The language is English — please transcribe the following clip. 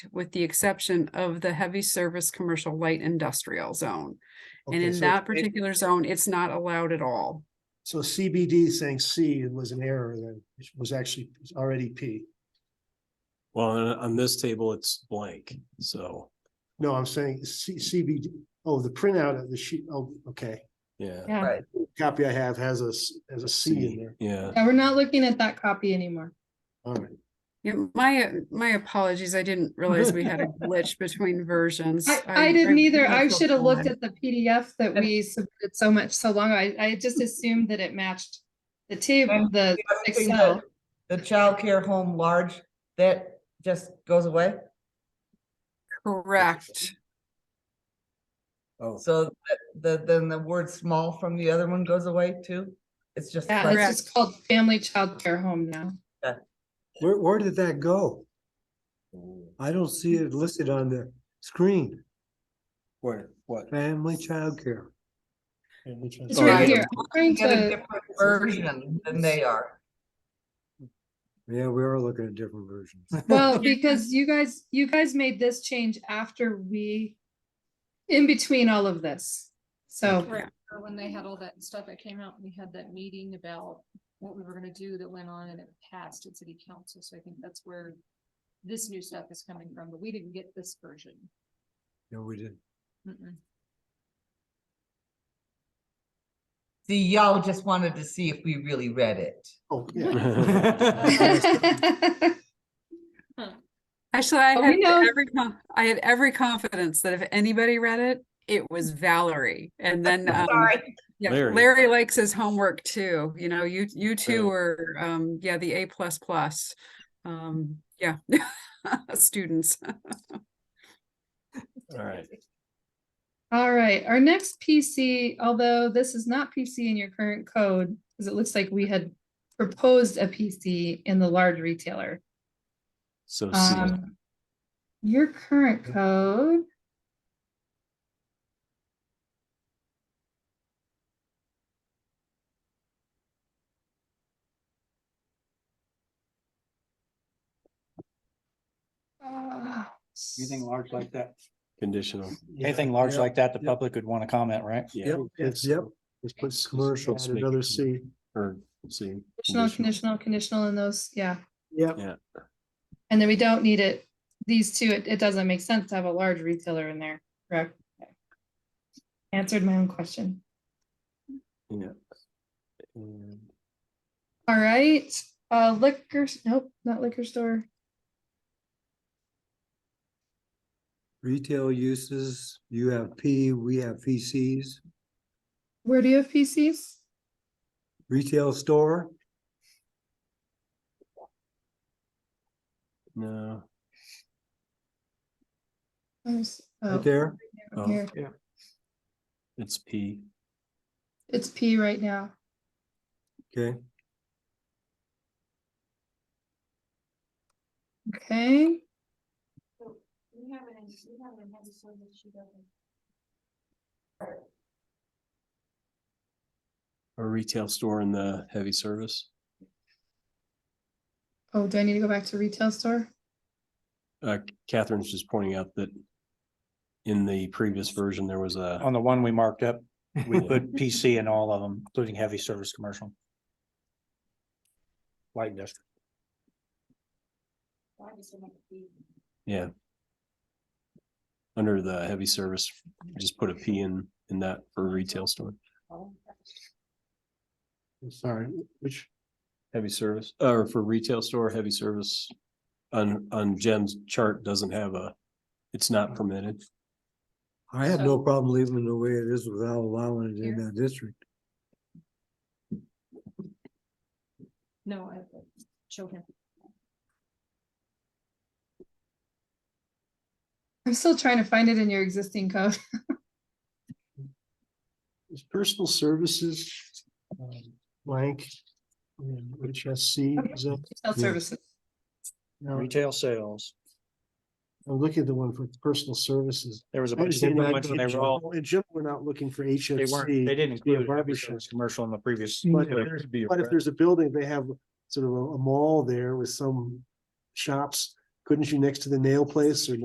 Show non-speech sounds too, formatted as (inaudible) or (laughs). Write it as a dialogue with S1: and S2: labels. S1: with the exception of the heavy service commercial light industrial zone. And
S2: Okay,
S1: in
S2: so
S1: that
S2: it-
S1: particular zone, it's not allowed at all.
S2: So CBD saying C was an error then, which was actually already P.
S3: Well, on, on this table, it's blank, so,
S2: No, I'm saying C, CBD, oh, the printout of the sheet, oh, okay.
S3: yeah.
S4: Yeah,
S2: Copy I have has a, s- has a C in there.
S3: Yeah,
S4: Yeah, we're not looking at that copy anymore.
S2: All right.
S1: Yeah, my, my apologies. I didn't realize we
S2: (laughs)
S1: had a glitch between versions.
S4: I, I didn't either. I should have looked
S1: at.
S4: at the PDF that we submitted so much, so long. I, I just assumed that it matched the table,
S5: And
S4: the
S5: The other thing,
S4: Excel.
S5: The the childcare home large, that just goes away.
S1: Correct.
S3: oh,
S5: So th- the, then the word small from the other one goes away too. It's just.
S4: Yeah,
S5: like-
S4: it's just called family childcare home now.
S6: Where, where did that go? I don't see it listed on the screen,
S3: where, what?
S6: family childcare.
S2: And which one's-
S4: It's
S3: Oh,
S4: right
S3: yeah.
S4: here. I'm trying
S5: Get a
S4: to,
S5: different version than they are.
S6: Yeah, we are looking at different
S4: (laughs)
S6: versions.
S4: well, because you guys, you guys made this change after we, in between all of this. So
S7: Correct. Or When they had all that stuff that came out, we had that meeting about what we were gonna do that went on and it passed at city council, so I think that's where. This new stuff is coming from, but we didn't get this version.
S6: No, we
S4: (laughs)
S6: didn't.
S7: Mm-mm.
S5: See, y'all just wanted to see if we really read it.
S2: Oh, yeah.
S1: Actually, I
S4: But Oh, we
S1: had
S4: know-
S1: every, con- I had every confidence that if anybody read it, it was Valerie. And
S4: (laughs)
S1: then, um, yeah,
S3: Larry.
S1: Larry likes his homework too. You know, you, you two
S3: Really?
S1: were, um, yeah, the A plus plus. Um, yeah, (laughs) students.
S3: All right,
S4: All right, our next PC, although this is not PC in your current code, because it looks like we had proposed a PC in the large retailer.
S3: (laughs) so C,
S4: Um, your current code. Uh,
S8: Anything large like that,
S3: conditional,
S2: Yeah.
S8: anything large
S2: Yeah.
S8: like that, the
S2: Yep.
S8: public would want to comment, right?
S3: yeah,
S6: Yep, it's, yep,
S2: Let's put commercial, add another C.
S3: or C.
S4: Conditional, conditional, conditional in those, yeah.
S2: Yep.
S3: Yeah.
S4: And then we don't need it, these two, it, it doesn't make sense to have a large retailer in there, correct? Answered my own question.
S3: Yeah. And
S4: All right, uh, liquor, s- nope, not liquor store.
S6: retail uses, you have P, we have PCs,
S4: Where do you have PCs?
S6: retail store,
S3: No,
S4: Let me see.
S6: right
S4: Oh,
S6: there.
S3: oh.
S4: here,
S3: it's P,
S4: it's P right now.
S6: Okay,
S4: Okay,
S7: We haven't, we haven't had this one that she doesn't.
S3: a retail store in the heavy service.
S4: oh, do I need to go back to retail store?
S3: Uh, Catherine's just pointing out that in the previous version, there was a.
S8: On the one we marked up, we
S3: Yeah.
S8: put PC in all of them, including heavy service commercial. Light industrial.
S7: Why does it have to be?
S3: Yeah. Under the heavy service, just put a P in, in that for retail store,
S2: I'm Sorry, which,
S3: heavy service, or for retail store, heavy service. On, on Jen's chart doesn't have a, it's not permitted.
S6: I have no problem leaving it the way it is without allowing it in
S7: Here.
S6: that district.
S7: No, I showed him.
S4: I'm still trying to find it in your existing code. (laughs)
S2: is personal services um, blank? And Which has C, is that?
S4: Retail services.
S2: no,
S8: Uh, Retail sales.
S2: I'm looking at the one for personal services.
S8: There was a
S2: I
S8: bunch of
S2: understand
S8: different
S2: that,
S8: ones and
S2: but
S8: they
S2: in
S8: were all,
S2: general- in general, we're not looking for
S8: they
S2: HFC.
S8: weren't, they didn't
S2: to be a
S8: include heavy
S2: barbershop.
S8: service commercial in the previous.
S2: But if
S8: but-
S2: there's- But if there's a building, they have sort of a a mall there with some shops, couldn't you next to the nail place or